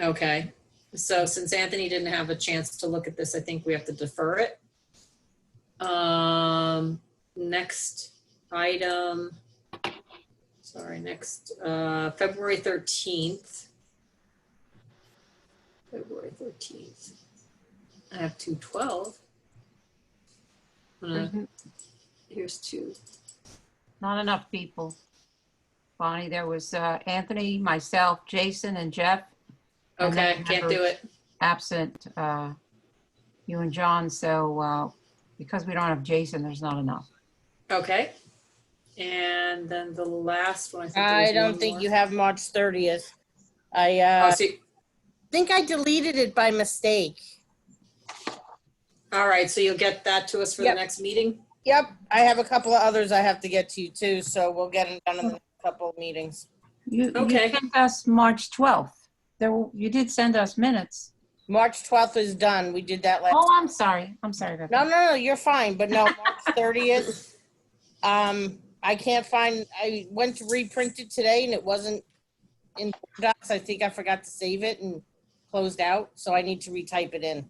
Okay, so since Anthony didn't have a chance to look at this, I think we have to defer it. Um, next item, sorry, next, uh, February thirteenth. February thirteenth. I have two twelve. Uh, There's here's two. Not enough people. Bonnie, there was uh, Anthony, myself, Jason, and Jeff And then Okay, can't members. do it. absent, uh, you and John, so uh, because we don't have Jason, there's not enough. Okay. And then the last one. I, think there was I one don't think more. you have March 30th. I Oh, uh, so you- think I deleted it by mistake. All right, so you'll get that to us for the Yep. next meeting? Yep, I have a couple of others I have to get to too, so we'll get them done in the next couple of meetings. You you Okay. sent us March 12th. There, w- you did send us minutes. March 12th is done. We did that last. Oh, I'm sorry. I'm sorry about No, that. no, no, you're fine, but no, March 30th. Um, I can't find, I went to reprint it today and it wasn't in Word docs. I think I forgot to save it and closed out, so I need to retype it in.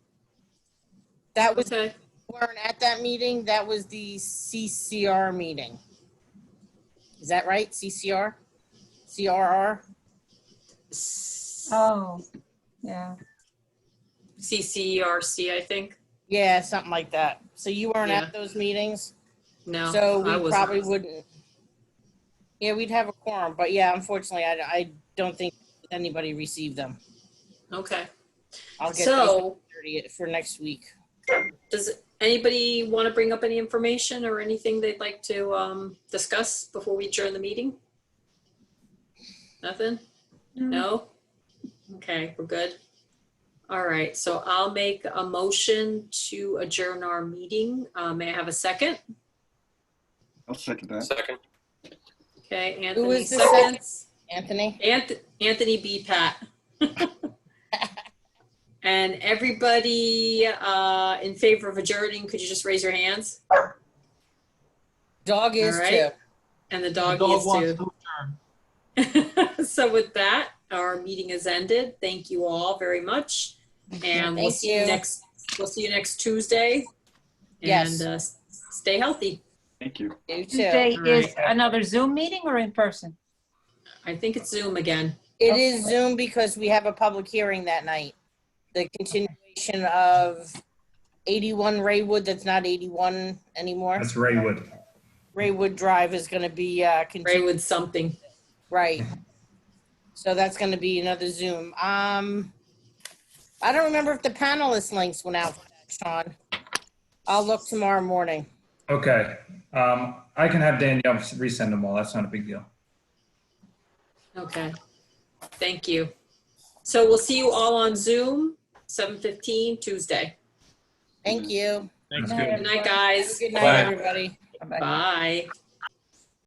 That was, Okay. weren't at that meeting, that was the CCR meeting. Is that right? CCR? CRR? Oh, yeah. CCRC, I think. Yeah, something like that. So you weren't Yeah. at those meetings? No, So I we wasn't. probably wouldn't. Yeah, we'd have a quorum, but yeah, unfortunately, I, I don't think anybody received them. Okay, I'll get those so thirty for next week. does anybody want to bring up any information or anything they'd like to um, discuss before we adjourn the meeting? Nothing? No? Okay, we're good. All right, so I'll make a motion to adjourn our meeting. Uh, May I have a second? I'll second that. Second. Okay, Who Anthony was the second? seconds. Anthony? Anth- Anthony B. Pat. And everybody uh, in favor of adjourning, could you just raise your hands? Dog is All too. right. And the dog dog is wants to turn. too. So with that, our meeting is ended. Thank you all very much. And we'll Thank see you you. next, we'll see you next Tuesday. Yes. And uh, s- stay healthy. Thank you. You too. Tuesday All is another Zoom meeting or in person? I think it's Zoom again. It is Zoom because we have a public hearing that night. The continuation of eighty-one Raywood, that's not eighty-one anymore. That's Raywood. Raywood Drive is gonna be, uh, continued. Ray with something. Right. So that's gonna be another Zoom. Um, I don't remember if the panelist links went out for that, Sean. I'll look tomorrow morning. Okay. Um, I can have Danielle resend them all. That's not a big deal. Okay. Thank you. So we'll see you all on Zoom, 7:15 Tuesday. Thank you. That's Good good. Good night, Have a guys. Good night, Bye. everybody. Bye-bye. Bye.